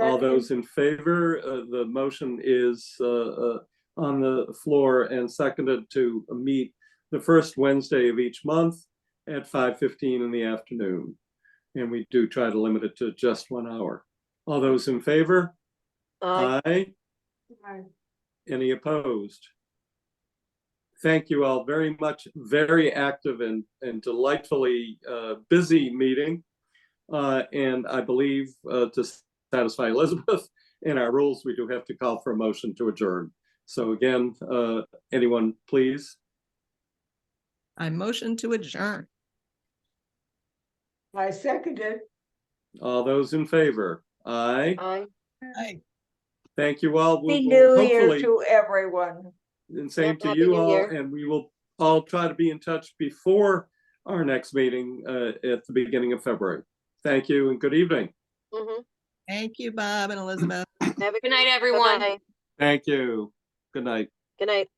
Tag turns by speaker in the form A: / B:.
A: All those in favor, uh, the motion is, uh, uh, on the floor and seconded to meet the first Wednesday of each month at five fifteen in the afternoon. And we do try to limit it to just one hour. All those in favor?
B: Aye.
A: Aye. Any opposed? Thank you all very much. Very active and, and delightfully, uh, busy meeting. Uh, and I believe, uh, to satisfy Elizabeth and our rules, we do have to call for a motion to adjourn. So again, uh, anyone, please?
C: I motion to adjourn.
D: I seconded.
A: All those in favor? Aye.
B: Aye.
A: Thank you all. We'll-
D: Happy
A: we'll
D: New Year
A: hopefully-
D: to everyone.
A: And same to
B: Happy
A: you
B: New
A: all,
B: Year.
A: and we will all try to be in touch before our next meeting uh, at the beginning of February. Thank you and good evening.
B: Mhm.
C: Thank you, Bob and Elizabeth.
B: Have a
E: Good night, everyone.
B: night.
A: Thank you. Good night.
B: Good night.